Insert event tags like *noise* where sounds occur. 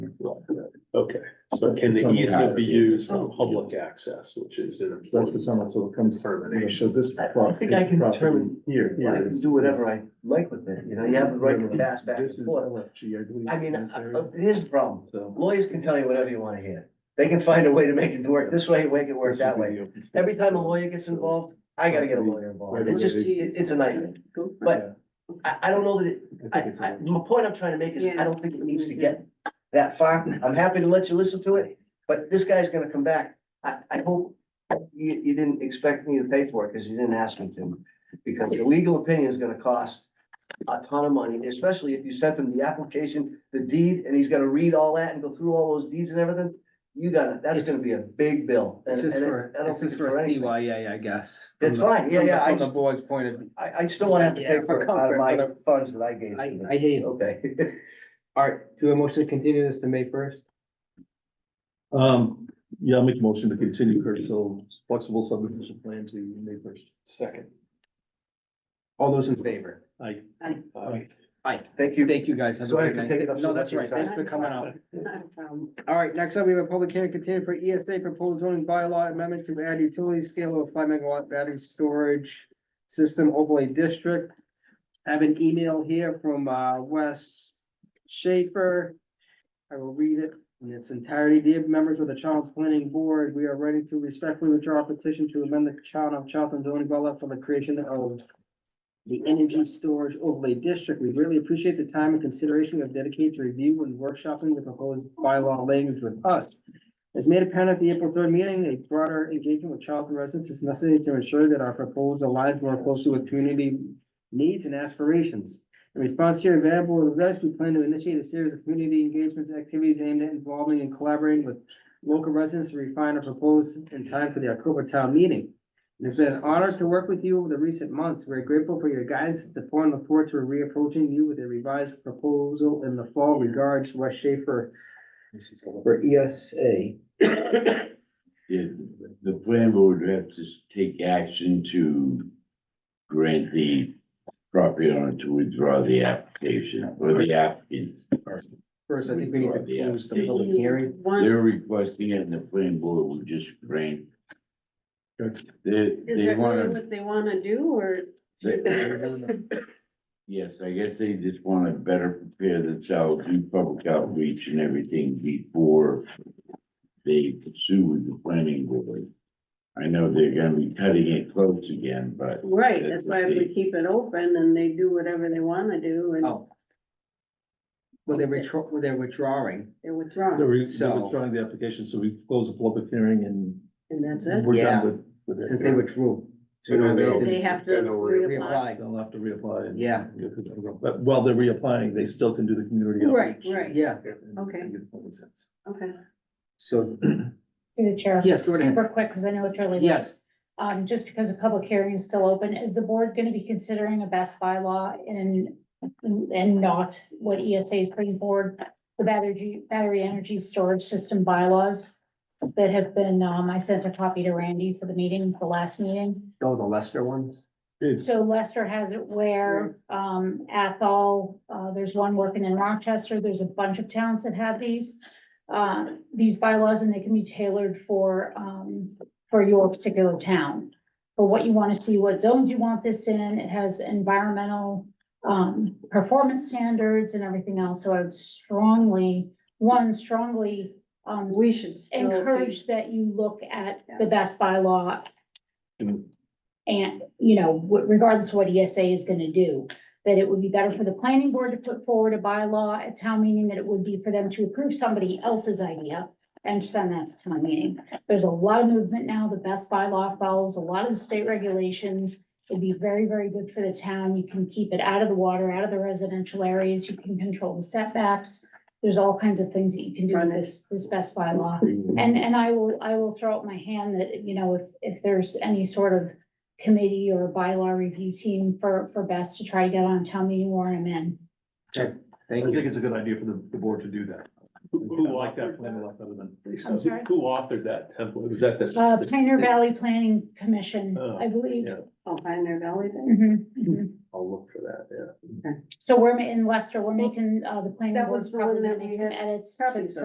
Okay, so can the easement be used for public access, which is an That's the important. summer, so it comes. So this. I I think I can property determine, Here. I here can is- do whatever I like with it, you know, you have the right to pass back This and is forth. LFG, I believe. I mean, this uh, area. uh, here's the problem, So. lawyers can tell you whatever you wanna hear, they can find a way to make it work this way, make it work this that would be way. the open space. Every time a lawyer gets involved, I gotta get a lawyer involved, it's just, it- it's a nightmare, but I, I don't know that it, I I, think it's I, a- my point I'm trying to make is, I Yeah. don't think it needs to get that far. I'm happy to let you listen to it, but this guy's gonna come back. I, I hope you, you didn't expect me to pay for it, because you didn't ask me to. Because the legal opinion is gonna cost a ton of money, especially if you sent him the application, the deed, and he's gonna read all that and go through all those deeds and everything. You gotta, that's gonna be a big bill. and- It's just and it- for, I don't it's think just for a anything. CYA, I guess. from It's the- fine, yeah, from the- yeah, I From just- the board's point of, view. I, I just don't wanna have to Yeah, pay for for it out of comfort, my but- funds that I gave. I, you. I hear you. Okay. *laughs* All right, do a motion to continue this to May first? Um, yeah, I'll make a motion to continue Kurt Hill's flexible subdivision plan to May first. Second. All those in favor? I. Aye. Aye. Thank you. Thank you, guys. Have a Sorry great for night. taking up so No, that's much of right. your Thanks time. for coming out. Not a problem. All right, next up, we have a public hearing continued for ESA proposed zoning bylaw amendment to add utility scale of five megawatt battery storage system overlay district. I have an email here from uh Wes Schaefer. I will read it in its entirety. Dear members of the Charles Planning Board, we are ready to respectfully withdraw our petition to amend the town of Charlton zoning bylaw for the creation of the energy storage overlay district. We really appreciate the time and consideration you have dedicated to review and workshopping the proposed bylaw language with us. As made apparent at the April third meeting, a broader engagement with Charlton residents is necessary to ensure that our proposal aligns more closely with community needs and aspirations. In response to your available advice, we plan to initiate a series of community engagements activities aimed at involving and collaborating with local residents to refine our proposed in time for the October town meeting. It's been an honor to work with you over the recent months. We're grateful for your guidance and support and look forward to reapproaching you with a revised proposal in the fall. Regards, Wes Schaefer for E ESA. Yeah, the plan board would have to take action to grant the property owner to withdraw the application or the applicant. First, I think we need to close the uh, public hearing. They're One, requesting it and the plan board will just grant. They, is they that really wanna, what they wanna do, or? *laughs* They- yes, I guess they just wanna better prepare themselves, do public outreach and everything before they pursue with the planning board. I know they're gonna be cutting it close again, but Right, that's why if we keep it open and they do whatever they wanna do and Oh. Well, they're withdraw, well, they're withdrawing. they're withdrawn, They're re- So- they're withdrawing the application, so we close the public hearing and and that's it. we're Yeah. done with. with it. Since they withdrew. So now They have to Then they'll re- reapply. Reapply. They'll have to reapply. and- Yeah. But while they're reapplying, they still can do the community Right, outreach. right, Yeah, Okay. okay. so, Through the chair. Yes, go right ahead. Super quick, because I know it's early. yes, Um, just because the public hearing is still open, is the board going to be considering a best bylaw and, and not what ESA is putting forward? The battery, battery energy storage system bylaws that have been, um, I sent a copy to Randy for the meeting, the last meeting. oh, the Lester ones? It's, So Lester has it where, um, Athol, uh, there's one working in Rochester, there's a bunch of towns that have these. uh, these bylaws and they can be tailored for, um, for your particular town. For what you want to see, what zones you want this in, it has environmental, um, performance standards and everything else, so I would strongly, one, strongly, um, We should still. be- encourage that you look at the best bylaw. And, you know, w- regardless of what ESA is gonna do, that it would be better for the planning board to put forward a bylaw at town meeting than it would be for them to approve somebody else's idea and send that to town meeting. There's a lot of movement now. The best bylaw follows a lot of the state regulations. It'd be very, very good for the town. You can keep it out of the water, out of the residential areas. You can control the setbacks. There's all kinds of things that you can do with this, this best bylaw. And, and I will, I will throw up my hand that, you know, if, if there's any sort of committee or bylaw review team for, for best to try to get on town meeting warrant, I'm in. I Thank think you. it's a good idea for the, the board to do that. Who I authored like that plan a lot better than. I'm sorry? Who authored that template? Was that the? Uh, Pioneer Valley Planning Commission, I believe. Yeah. Oh, Pioneer Valley then? Mhm, mhm. I'll look for that, yeah. So we're ma- in Leicester, we're making, uh, the planning That board was the one probably that gonna we make some had- edits. to- Probably so.